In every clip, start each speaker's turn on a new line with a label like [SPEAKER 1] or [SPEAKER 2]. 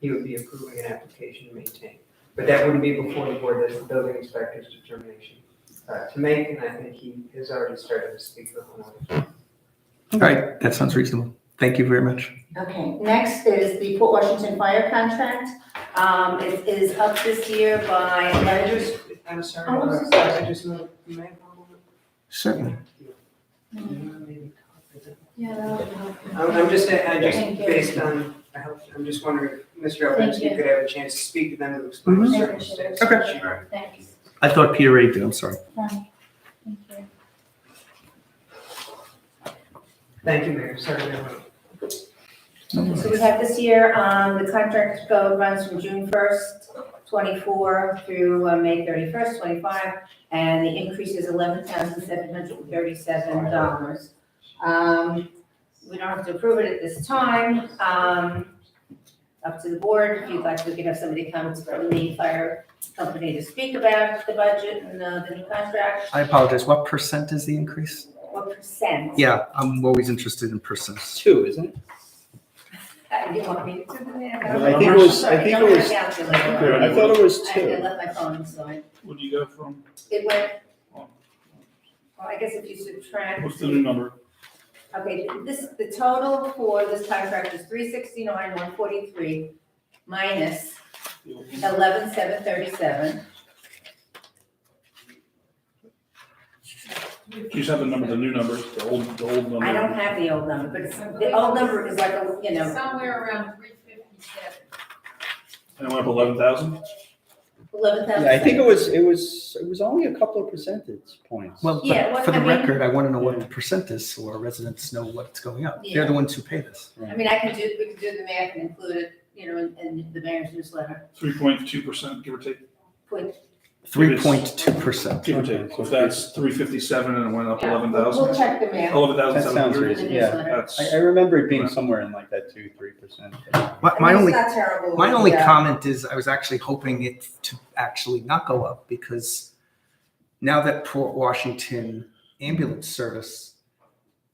[SPEAKER 1] he would be approving an application to maintain. But that wouldn't be before the board, that's the building inspector's determination uh, to make, and I think he has already started to speak with one of them.
[SPEAKER 2] All right, that sounds reasonable. Thank you very much.
[SPEAKER 3] Okay, next is the Port Washington Fire contract. Um, it is up this year by,
[SPEAKER 1] I just, I'm sorry,
[SPEAKER 3] Oh, I'm so
[SPEAKER 1] I just moved, you may have
[SPEAKER 2] Certainly.
[SPEAKER 3] yeah,
[SPEAKER 1] I'm, I'm just, I just,
[SPEAKER 3] Thank you.
[SPEAKER 1] based on, I hope, I'm just wondering, Mr. Evans,
[SPEAKER 3] Thank
[SPEAKER 1] you
[SPEAKER 3] you.
[SPEAKER 1] could have a chance to speak to them and explain the
[SPEAKER 3] Mhm.
[SPEAKER 1] circumstances.
[SPEAKER 3] Okay.
[SPEAKER 1] Sure.
[SPEAKER 3] thanks.
[SPEAKER 2] I thought Peter Ray did, I'm sorry.
[SPEAKER 3] Thank you.
[SPEAKER 1] Thank you, Mayor, sorry, I went-
[SPEAKER 3] So we have this year, um, the contract go runs from June first, twenty-four through uh, May thirty-first, twenty-five, and the increase is eleven thousand seven hundred and thirty-seven dollars. Um, we don't have to approve it at this time, um, up to the board, if you'd like, we can have somebody come from the fire company to speak about the budget and uh, the new contract,
[SPEAKER 2] I apologize. What percent is the increase?
[SPEAKER 3] what percent?
[SPEAKER 2] Yeah, I'm always interested in percents.
[SPEAKER 4] two, isn't it?
[SPEAKER 3] Uh, You want me to do that?
[SPEAKER 4] I think it was- I think it was-
[SPEAKER 3] Sorry, I don't have a calculator.
[SPEAKER 4] I thought it was
[SPEAKER 3] I I
[SPEAKER 4] two.
[SPEAKER 3] left my phone, so I,
[SPEAKER 5] What do you go from, Oh,
[SPEAKER 3] it went, well, I guess if you subtract.
[SPEAKER 5] what's the new number?
[SPEAKER 3] Okay, this, the total for this contract is three sixty-nine, one forty-three minus eleven, seven thirty-seven.
[SPEAKER 5] You just have the number, the new number, the old, the old number.
[SPEAKER 3] I don't have the old number, but it's, the old number is like, a you know,
[SPEAKER 6] Somewhere around three fifty-seven.
[SPEAKER 5] And it went up eleven thousand?
[SPEAKER 3] eleven thousand.
[SPEAKER 4] Yeah, I think it was, it was, it was only a couple of percentage points.
[SPEAKER 2] Well,
[SPEAKER 3] Yeah,
[SPEAKER 2] but
[SPEAKER 3] what-
[SPEAKER 2] for the
[SPEAKER 3] I mean-
[SPEAKER 2] record, I want to know what the percent is so our residents know what's going up. They're the ones who pay this.
[SPEAKER 3] I mean, I can do, we can do the math and include it, you know, in, in the mayor's newsletter.
[SPEAKER 5] Three point two percent, give or take,
[SPEAKER 3] Put-
[SPEAKER 2] Three point two percent.
[SPEAKER 5] give or take. So if that's three fifty-seven and it went up
[SPEAKER 3] yeah,
[SPEAKER 5] eleven
[SPEAKER 3] We'll we'll
[SPEAKER 5] thousand,
[SPEAKER 3] check the math
[SPEAKER 5] eleven thousand
[SPEAKER 4] That
[SPEAKER 5] seven
[SPEAKER 4] sounds
[SPEAKER 5] hundred.
[SPEAKER 3] in the
[SPEAKER 4] reasonable, Oh, yeah.
[SPEAKER 3] newsletter.
[SPEAKER 5] That's,
[SPEAKER 4] I, I remember it being somewhere in like that two, three percent.
[SPEAKER 2] My,
[SPEAKER 3] I
[SPEAKER 2] my
[SPEAKER 3] mean,
[SPEAKER 2] only,
[SPEAKER 3] It's not terrible.
[SPEAKER 2] my only
[SPEAKER 3] yeah.
[SPEAKER 2] comment is I was actually hoping it to actually not go up because now that Port Washington ambulance service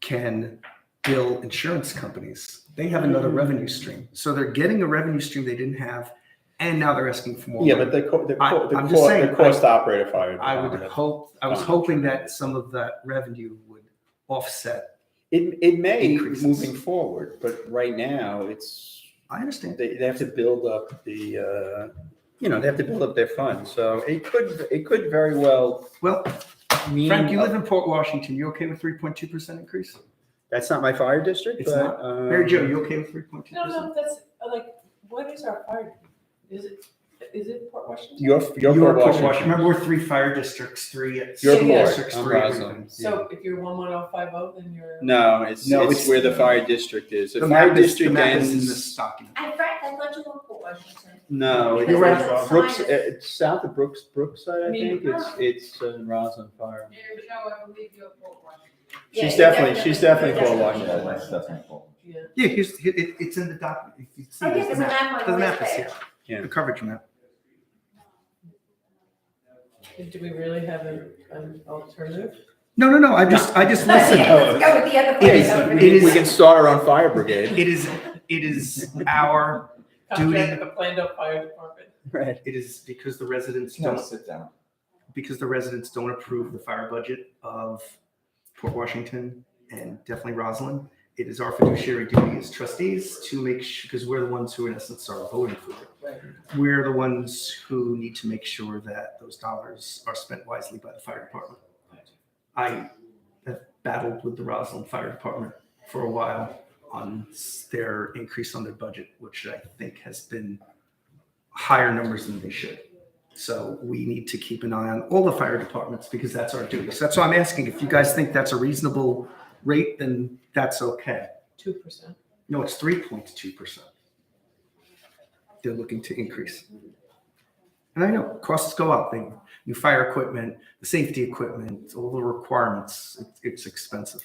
[SPEAKER 2] can bill insurance companies, they have another revenue stream. So they're getting a revenue stream they didn't have and now they're asking for more.
[SPEAKER 4] Yeah,
[SPEAKER 2] money.
[SPEAKER 4] but the, co- the,
[SPEAKER 2] I-
[SPEAKER 4] co- the
[SPEAKER 2] I'm just
[SPEAKER 4] cost,
[SPEAKER 2] saying,
[SPEAKER 4] the cost operator fire.
[SPEAKER 2] I would
[SPEAKER 4] department.
[SPEAKER 2] hope, I was
[SPEAKER 4] fine.
[SPEAKER 2] hoping that some of that revenue would offset.
[SPEAKER 4] It, it may
[SPEAKER 2] Increases.
[SPEAKER 4] moving forward, but right now it's,
[SPEAKER 2] I understand.
[SPEAKER 4] they, they have to build up the, uh, you know, they have to build up their funds. So it could, it could very well
[SPEAKER 2] Well,
[SPEAKER 4] mean.
[SPEAKER 2] Frank, you live in Port Washington. You okay with three point two percent increase?
[SPEAKER 4] That's not my fire district,
[SPEAKER 2] It's
[SPEAKER 4] but. um,
[SPEAKER 2] Mary Jo, you okay with three point two
[SPEAKER 6] No,
[SPEAKER 2] percent?
[SPEAKER 6] no, that's, like, what is our fire, is it, is it Port Washington?
[SPEAKER 4] Your, your
[SPEAKER 2] You're
[SPEAKER 4] Port Washington.
[SPEAKER 2] Remember, we're three fire districts, three.
[SPEAKER 4] Your
[SPEAKER 2] school
[SPEAKER 4] board.
[SPEAKER 2] districts,
[SPEAKER 4] I'm
[SPEAKER 2] three
[SPEAKER 4] Roslyn.
[SPEAKER 2] everything.
[SPEAKER 6] So if you're one one oh five oh, then you're.
[SPEAKER 4] No, it's,
[SPEAKER 2] No,
[SPEAKER 4] it's,
[SPEAKER 2] it's-
[SPEAKER 4] where the fire district is. The,
[SPEAKER 2] The
[SPEAKER 4] fire
[SPEAKER 2] map is, the
[SPEAKER 4] district
[SPEAKER 2] map
[SPEAKER 4] ends.
[SPEAKER 2] is in this document.
[SPEAKER 3] I, Frank, I thought you were for Washington.
[SPEAKER 4] No,
[SPEAKER 2] You're right.
[SPEAKER 4] it's Brooks.
[SPEAKER 3] Sign is-
[SPEAKER 4] It's south of Brooks, Brookside. I
[SPEAKER 6] I mean,
[SPEAKER 4] think it's it's uh, Roslyn Fire.
[SPEAKER 6] Mayor Joe, I believe you're Port Washington.
[SPEAKER 3] Yeah,
[SPEAKER 4] She's
[SPEAKER 3] you
[SPEAKER 4] definitely, she's definitely
[SPEAKER 3] definitely-
[SPEAKER 4] for
[SPEAKER 7] Yeah,
[SPEAKER 4] Washington.
[SPEAKER 7] that's definitely cool.
[SPEAKER 6] Yeah.
[SPEAKER 2] Yeah, here's, here- it, it's in the document. You can see
[SPEAKER 3] Oh, yeah,
[SPEAKER 2] there's the
[SPEAKER 3] there's a map
[SPEAKER 2] The
[SPEAKER 3] on the
[SPEAKER 2] map is
[SPEAKER 3] website.
[SPEAKER 2] here.
[SPEAKER 4] Yeah.
[SPEAKER 2] The coverage map.
[SPEAKER 6] Do we really have an, an alternative?
[SPEAKER 2] No, no, no, I just, I just
[SPEAKER 3] Let's
[SPEAKER 2] listened.
[SPEAKER 4] Listen.
[SPEAKER 3] go with the other
[SPEAKER 2] It is-
[SPEAKER 3] place over
[SPEAKER 2] it
[SPEAKER 3] there.
[SPEAKER 2] is-
[SPEAKER 4] We can start our own fire brigade.
[SPEAKER 2] It is, it is our,
[SPEAKER 6] Contract
[SPEAKER 2] Duty.
[SPEAKER 6] with the Plano Fire Department.
[SPEAKER 4] Right.
[SPEAKER 2] it is because the residents
[SPEAKER 7] No,
[SPEAKER 2] don't
[SPEAKER 7] sit down.
[SPEAKER 2] because the residents don't approve the fire budget of Port Washington and definitely Roslyn, it is our fiduciary duty as trustees to make sure, because we're the ones who in essence are voting for it. We're the ones who need to make sure that those dollars are spent wisely by the fire department. I have battled with the Roslyn Fire Department for a while on s- their increase on their budget, which I think has been higher numbers than they should. So we need to keep an eye on all the fire departments because that's our duty. So that's why I'm asking, if you guys think that's a reasonable rate, then that's okay.
[SPEAKER 6] Two percent.
[SPEAKER 2] No, it's three point two percent. They're looking to increase. And I know costs go up, they, new fire equipment, the safety equipment, all the requirements, it's, it's expensive.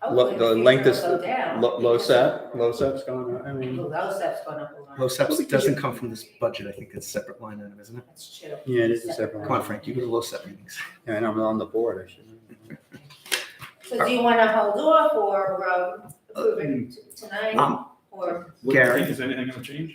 [SPEAKER 3] Hopefully
[SPEAKER 4] the
[SPEAKER 3] in future
[SPEAKER 4] length
[SPEAKER 3] it'll
[SPEAKER 4] is-
[SPEAKER 3] go down.
[SPEAKER 4] Low, low sap, low sap's going on. I mean,
[SPEAKER 3] Well, low sap's gone up a lot.
[SPEAKER 2] Low SEPs doesn't come from this budget, I think it's a separate line item, isn't it?
[SPEAKER 3] That's true.
[SPEAKER 4] yeah, it is a separate.
[SPEAKER 2] Come on, Frank, you go to low SEP meetings.
[SPEAKER 4] Yeah, and I'm on the board. I should.
[SPEAKER 3] So do you want to hold off or um, approve it t- tonight
[SPEAKER 2] Um,
[SPEAKER 3] or?
[SPEAKER 5] What do you
[SPEAKER 2] Gary.
[SPEAKER 5] think? Is anything gonna change?